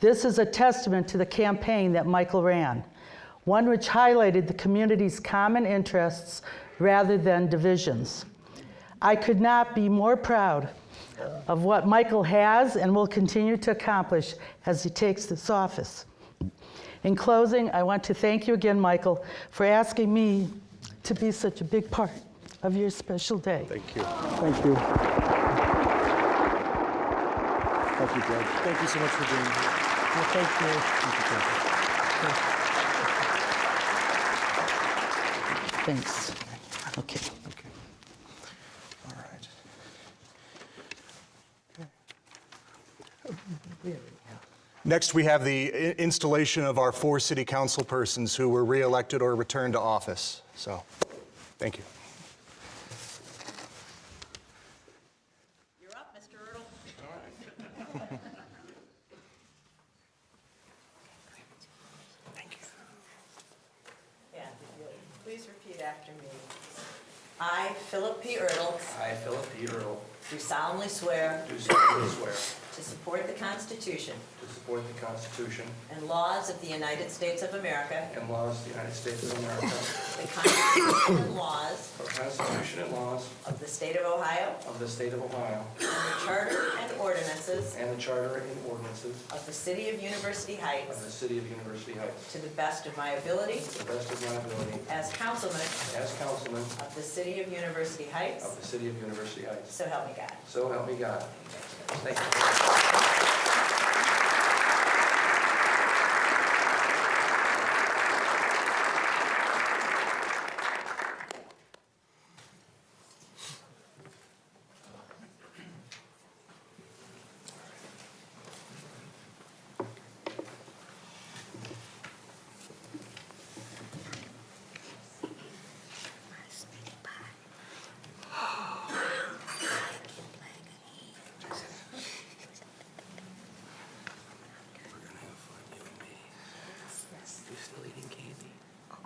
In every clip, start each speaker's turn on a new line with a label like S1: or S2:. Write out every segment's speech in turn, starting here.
S1: This is a testament to the campaign that Michael ran, one which highlighted the community's common interests rather than divisions. I could not be more proud of what Michael has and will continue to accomplish as he takes this office. In closing, I want to thank you again, Michael, for asking me to be such a big part of your special day.
S2: Thank you.
S3: Thank you. Thank you, Judge.
S2: Thank you so much for being here.
S1: Thanks. Okay.
S2: Okay. All right. Next, we have the i- installation of our four city council persons who were re-elected or returned to office. So, thank you.
S4: You're up, Mr. Erdl. Thank you. Please repeat after me. I, Philip P. Erdl,
S5: I, Philip P. Earl,
S4: do solemnly swear
S5: do solemnly swear to
S4: to support the Constitution
S5: support the Constitution
S4: and laws of the United States of America,
S5: and laws of the United States of America,
S4: the Constitution and laws
S5: the Constitution and laws
S4: of the State of Ohio,
S5: of the State of Ohio,
S4: and the Charter and ordinances
S5: and the Charter and ordinances
S4: of the City of University
S5: of the
S4: Heights,
S5: City of University Heights,
S4: to the best of my ability
S5: to the best of my ability,
S4: as councilman
S5: as councilman
S4: of the City of University Heights,
S5: of the City of University Heights.
S4: So help me God.
S5: So help me God. Thank you.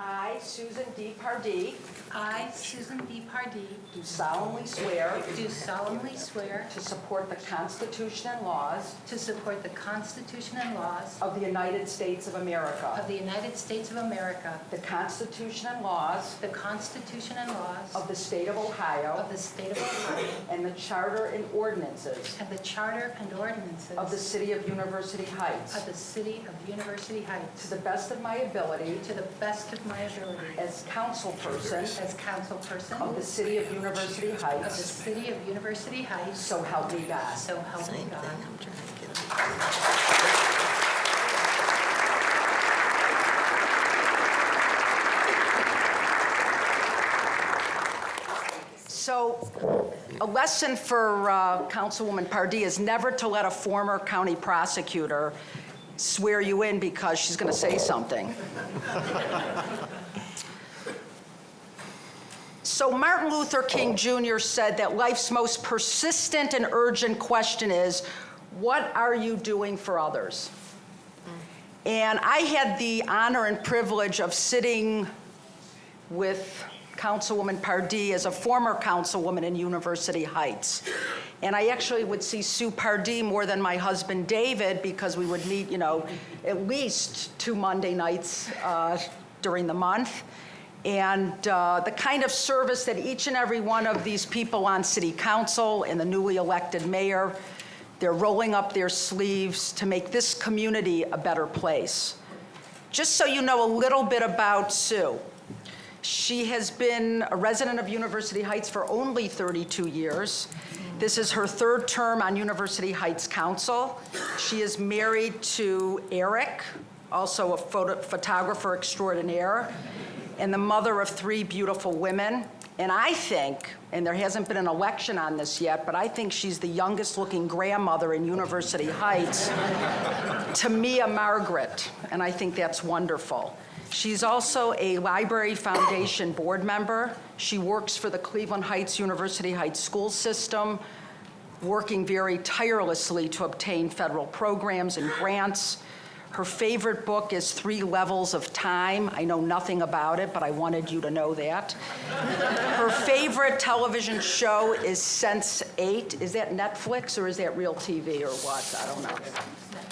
S4: I, Susan D. Pardee,
S6: I, Susan B. Pardee,
S4: do solemnly swear
S6: do solemnly swear
S4: to support the Constitution and laws
S6: to support the Constitution and laws
S4: of the United States of
S6: of
S4: America,
S6: the United States of America,
S4: the Constitution and laws
S6: the Constitution and laws
S4: of the State of Ohio,
S6: of the State of Ohio,
S4: and the Charter and ordinances
S6: and the Charter and ordinances
S4: of the City of University Heights,
S6: of the City of University
S4: to
S6: Heights,
S4: the best of my ability
S6: to the best of my ability
S4: as councilperson
S6: as councilperson
S4: of the
S6: of
S4: City of University
S6: the
S4: Heights,
S6: City of University Heights,
S4: so help me God.
S6: so help me God.
S7: So a lesson for uh, Councilwoman Pardee is never to let a former county prosecutor swear you in because she's going to say something. So Martin Luther King Jr. said that life's most persistent and urgent question is, what are you doing for others? And I had the honor and privilege of sitting with Councilwoman Pardee as a former councilwoman in University Heights. And I actually would see Sue Pardee more than my husband David because we would meet, you know, at least two Monday nights uh, during the month. And uh, the kind of service that each and every one of these people on city council and the newly elected mayor, they're rolling up their sleeves to make this community a better place. Just so you know a little bit about Sue. She has been a resident of University Heights for only 32 years. This is her third term on University Heights Council. She is married to Eric, also a photo- photographer extraordinaire, and the mother of three beautiful women. And I think, and there hasn't been an election on this yet, but I think she's the youngest-looking grandmother in University Heights to Mia Margaret, and I think that's wonderful. She's also a Library Foundation board member. She works for the Cleveland Heights University Heights School System, working very tirelessly to obtain federal programs and grants. Her favorite book is Three Levels of Time. I know nothing about it, but I wanted you to know that. Her favorite television show is Sense 8. Is that Netflix or is that real TV or what? I don't know.